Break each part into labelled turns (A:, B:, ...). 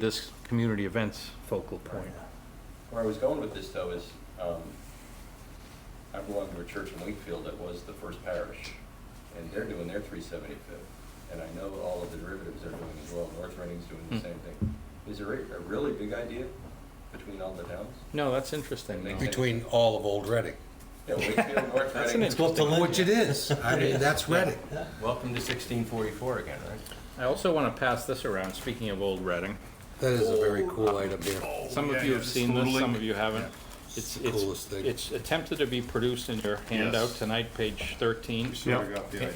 A: this community events focal point.
B: Where I was going with this though is, um, I belong to a church in Wakefield that was the first parish, and they're doing their three seventy-fifth. And I know all of the derivatives are doing as well, North Reading's doing the
A: Hmm.
B: same thing. Is there a a really big idea between all the towns?
A: No, that's interesting. though.
C: between all of Old Reading.
B: Yeah, Wakefield, North
A: That's
B: Reading.
A: an interesting-
C: Which it is. I mean, that's Reading.
D: Welcome to sixteen forty-four again, right?
A: I also want to pass this around, speaking of Old Reading.
C: That is a very cool item here.
A: Some of you have seen this, some of you haven't. It's,
C: the
A: it's,
C: coolest thing.
A: it's attempted to be produced in your handout
D: Yes.
A: tonight, page 13.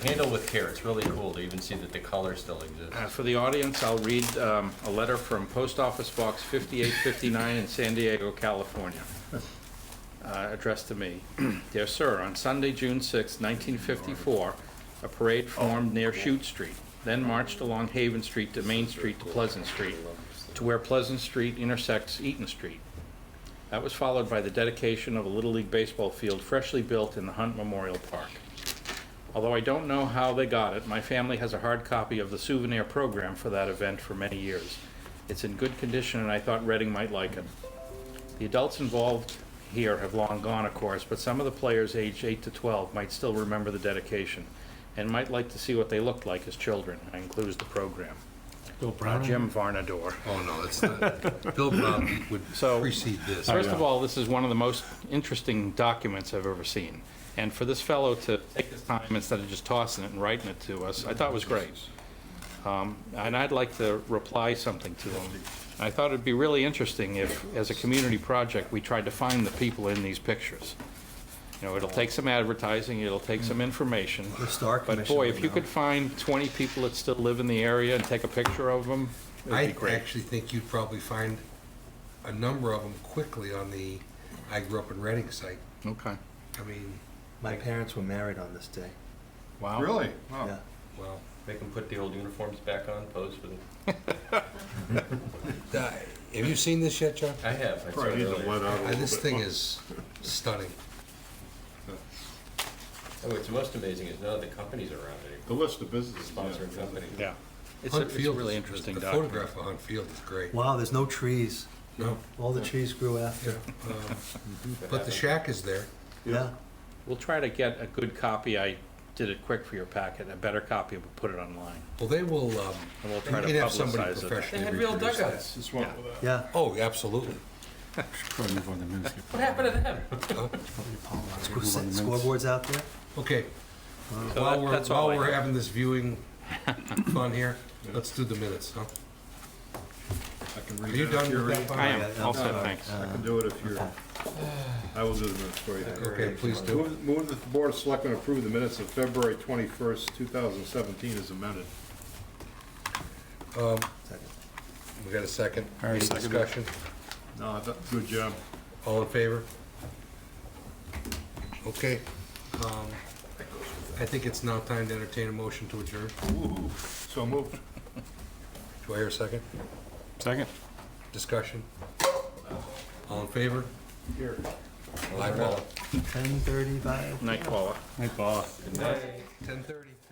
D: Handle with care, it's really cool to even see that the color still exists.
A: Uh, For the audience, I'll read um, a letter from Post Office Box 5859 in San Diego, California, uh, addressed to me. Dear Sir, on Sunday, June 6, 1954, a parade formed near Chute Street, then marched along Haven Street to Main Street to Pleasant Street, to where Pleasant Street intersects Eaton Street. That was followed by the dedication of a Little League baseball field freshly built in the Hunt Memorial Park. Although I don't know how they got it, my family has a hard copy of the souvenir program for that event for many years. It's in good condition, and I thought Reading might like it. The adults involved here have long gone, of course, but some of the players aged 8 to 12 might still remember the dedication and might like to see what they looked like as children. I includes the program. Uh, Jim Varnador.
C: Oh, no, it's not. Bill Brown would
A: So-
C: precede this.
A: First of all, this is one of the most interesting documents I've ever seen. And for this fellow to take his time instead of just tossing it and writing it to us, I thought was great. Um, And I'd like to reply something to him. I thought it'd be really interesting if, as a community project, we tried to find the people in these pictures. You know, it'll take some advertising, it'll take some information.
C: The Star
A: But
C: Commission
A: boy,
C: would
A: if you
C: know.
A: could find 20 people that still live in the area and take a picture of them, it'd be
C: I
A: great.
C: actually think you'd probably find a number of them quickly on the I grew up in Reading site.
A: Okay.
C: I mean,
E: My parents were married on this day.
A: Wow.
F: Really?
E: Yeah.
F: Wow.
C: well,
B: Make them put the old uniforms back on, pose for the,
C: uh, have you seen this yet, John?
B: I have, I saw it
F: Probably need to
B: earlier.
F: let out a
C: Uh,
F: little
C: This
F: bit.
C: thing is stunning.
B: Oh, what's most amazing is none of the companies around it,
F: The list of businesses.
B: sponsoring companies.
A: Yeah. It's a
C: Hunt
A: it's a
C: Field
A: really
C: is-
A: interesting
C: The
A: document.
C: photograph of Hunt Field is great.
E: Wow, there's no trees.
C: No,
E: All the trees grew
C: yeah.
E: after.
C: um, But the shack is there.
E: Yeah.
A: We'll try to get a good copy. I did it quick for your packet. A better copy, we'll put it online.
C: Well, they will, um,
A: And we'll try
C: you
A: to
C: can have somebody
A: publicize it.
C: professionally reproduce that.
F: Just one with that.
E: Yeah.
C: Oh, absolutely.
B: What happened to them?
E: Squ- Scoreboards out there.
C: Okay,
A: So
C: while
A: that-
C: we're,
A: that's all
C: while
A: I
C: we're
A: have.
C: having this viewing fun here, let's do the minutes, huh?
F: I can
C: Are
F: read
C: you
F: it if
C: done
F: you're
C: with
F: ready.
C: that?
A: I
C: Bob?
A: am.
E: Yeah,
A: All set,
E: uh,
A: thanks.
F: I can do it if you're, I will do the minutes for you.
C: Okay, please do.
F: Move move that the Board of Selectmen approve the minutes of February 21st, 2017 as amended.
C: We got a second? Any discussion?
F: No, that- good job.
C: All in favor? Okay. um, I think it's now time to entertain a motion to adjourn.
F: Ooh, So moved.
C: Do I hear a second?
A: Second.
C: Discussion? All in favor?
F: Here.
C: Aye, Paul.
E: Ten thirty-five.
A: Night, Paula.
C: Ten thirty.